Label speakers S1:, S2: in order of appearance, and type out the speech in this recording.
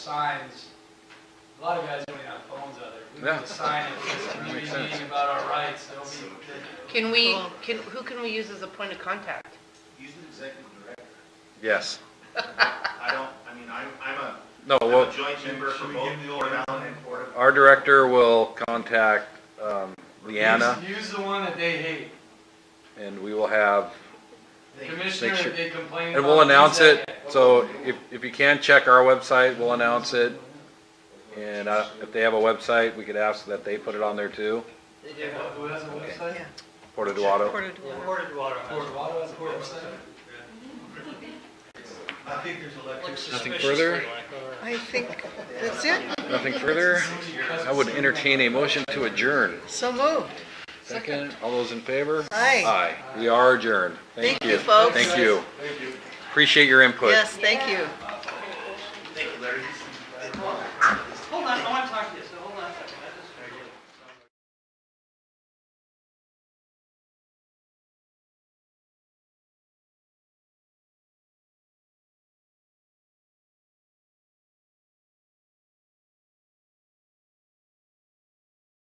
S1: signs, a lot of guys don't even have phones out there. We
S2: Yeah.
S1: need a sign at this community
S2: makes sense.
S1: meeting about our rights, they'll be, they'll-
S3: Can we, can, who can we use as a point of contact?
S4: He's an executive director.
S2: Yes.
S4: I don't, I mean, I'm, I'm a,
S2: No,
S4: I'm
S2: well,
S4: a joint member for both Port Allen and Port.
S2: our director will contact um, Leanna,
S1: Use use the one that they hate.
S2: and we will have,
S4: They-
S1: Commissioner,
S2: sure-
S1: if they complain about.
S2: and we'll
S1: use
S2: announce
S1: that
S2: it.
S1: guy.
S2: So if, if you can, check our website, we'll announce it. And uh, if they have a website, we could ask that they put it on there too,
S1: Yeah, who has a website?
S2: Porta Duato.
S1: Fort Waldo has a website?
S4: I think there's electric.
S2: Nothing further?
S5: I think that's it.
S2: Nothing further? I would entertain a motion to adjourn.
S5: So moved.
S2: Second, all those in favor?
S5: Aye.
S2: Aye. We are adjourned. Thank
S5: Thank
S2: you.
S5: you, folks.
S2: Thank you. Appreciate your input.
S5: Yes, thank you.
S4: Thank you, Larry.